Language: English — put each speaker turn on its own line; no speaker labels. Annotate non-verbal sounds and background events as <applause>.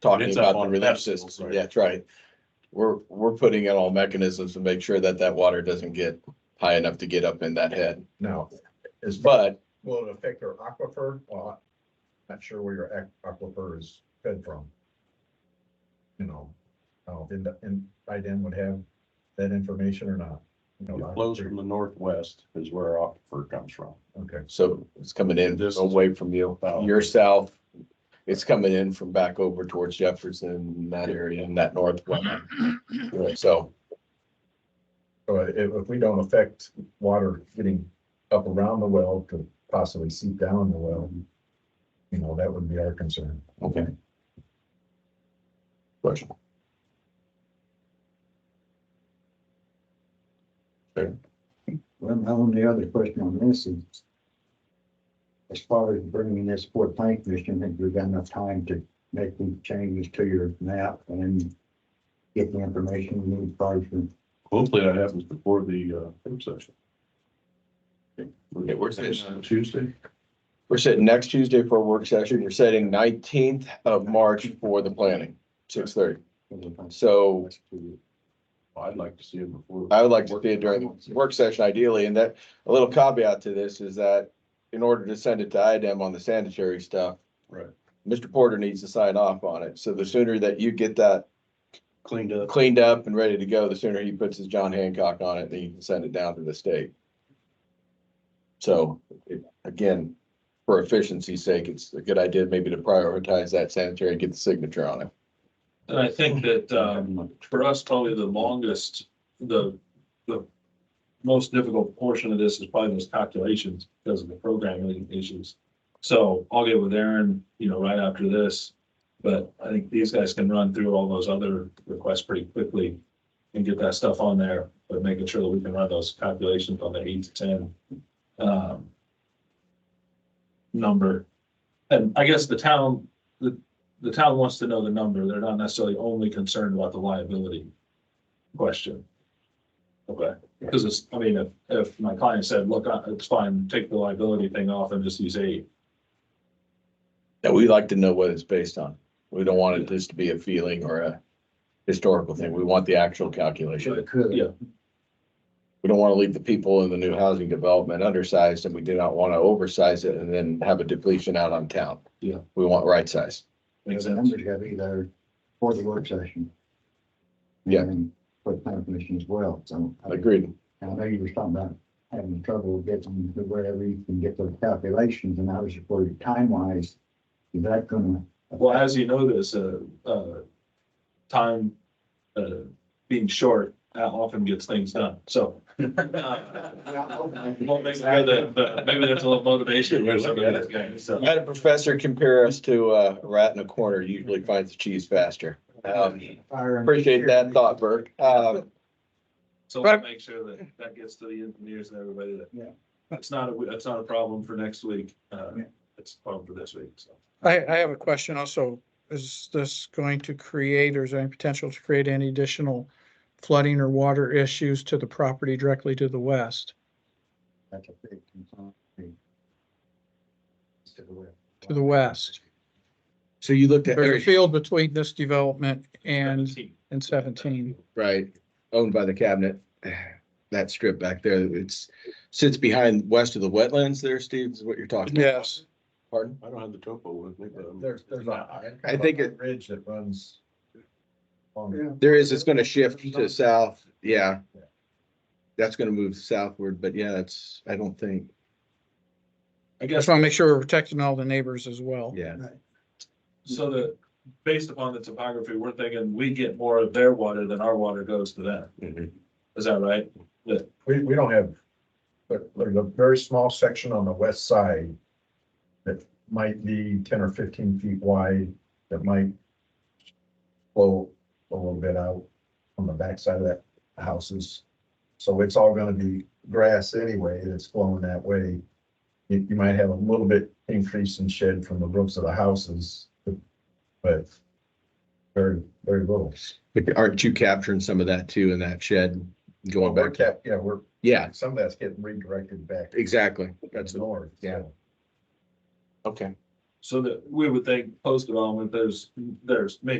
talking
It's
about
up
the
on
relief
festivals,
system.
right.
That's right. We're, we're putting in all mechanisms to make sure that that water doesn't get high enough to get up in that head.
Now, is,
But
will it affect our aquifer? Well, I'm not sure where your ac- aquifer is fed from. You know, oh, and, and IDEN would have that information or not? You know,
It flows from the northwest is where our aquifer comes from.
Okay,
so it's coming in
This is-
away from you.
Oh.
You're south. It's coming in from back over towards Jefferson, that area and that north one. So,
so if, if we don't affect water getting up around the well to possibly seep down the well, you know, that would be our concern.
okay. Question.
Well, my only other question on this is, as far as bringing this for plank commission, have you got enough time to make these changes to your map and get the information you need prior to?
Hopefully that happens before the uh, work session.
Yeah, work
uh,
session.
Tuesday.
We're sitting next Tuesday for a work session. You're setting nineteenth of March for the planning, six thirty. So
Oh, I'd like to see it before.
I would like to see it during the work session ideally, and that, a little caveat to this is that in order to send it to IDEM on the sanitary stuff,
Right.
Mr. Porter needs to sign off on it. So the sooner that you get that
Cleaned up.
cleaned up and ready to go, the sooner he puts his John Hancock on it, then you can send it down to the state. So it- again, for efficiency's sake, it's a good idea maybe to prioritize that sanitary, and get the signature on it.
And I think that, um, for us, probably the longest, the, the most difficult portion of this is probably those calculations because of the programming issues. So I'll get with Aaron, you know, right after this, but I think these guys can run through all those other requests pretty quickly and get that stuff on there, but making sure that we can run those calculations on the eight to ten, um, number. And I guess the town the town wants to know the number. They're not necessarily only concerned about the liability question. Okay, because it's, I mean, if, if my client said, look, I- it's fine, take the liability thing off and just use eight.
That we like to know what it's based on. We don't want it just to be a feeling or a historical thing. We want the actual calculation.
Could,
Yeah.
We don't want to leave the people in the new housing development undersized and we do not want to oversize it and then have a depletion out on town.
Yeah.
We want right size.
Makes
the
sense.
numbers gotta be there for the work session.
Yeah.
And For the planning commission as well, so.
Agreed.
And I know you were talking about having trouble getting to wherever you can get those calculations, and I was just worried time wise, is that gonna?
Well, as you know, this, uh, uh, time, uh, being short, that often gets things done,
<laughs>
so. uh, Well, maybe the- the- maybe there's a little motivation. for some of these guys, so.
I had a professor compare us to uh, a rat in a corner usually finds the cheese faster. Um, Appreciate that thought, Burke. Uh,
So
Right.
we'll make sure that that gets to the engineers and everybody that.
Yeah.
It's not a, it's not a problem for next week. Uh,
Yeah.
it's a problem for this week, so.
I, I have a question also. Is this going to create, or is there any potential to create any additional flooding or water issues to the property directly to the west,
That's a big concern. To the west.
to the west?
So you looked at,
There's a
every-
field between this development and,
17.
and seventeen.
right, owned by the cabinet, <sighs> that strip back there, it's, sits behind west of the wetlands there, Steve, is what you're talking about?
Yes.
Pardon?
I don't have the topo with me, but.
There's, there's a.
I think it-
Ridge that runs. along the-
There is, it's gonna shift to south, yeah. That's gonna move southward, but yeah, it's, I don't think,
I
Just
guess,
want to make sure we're protecting all the neighbors as well.
yeah.
so the, based upon the topography, we're thinking we get more of their water than our water goes to them.
Mm-hmm.
Is that right?
We, we don't have, but there's a very small section on the west side that might be ten or fifteen feet wide, that might flow a little bit out on the backside of that houses. So it's all gonna be grass anyway, that's flowing that way. You, you might have a little bit increase in shed from the roofs of the houses, but very, very little.
But aren't you capturing some of that too in that shed going
We're
back?
kept, yeah, we're,
Yeah,
some of that's getting redirected back
exactly. That's,
north.
yeah.
so.
Okay.
So that we would think post development, there's, there's maybe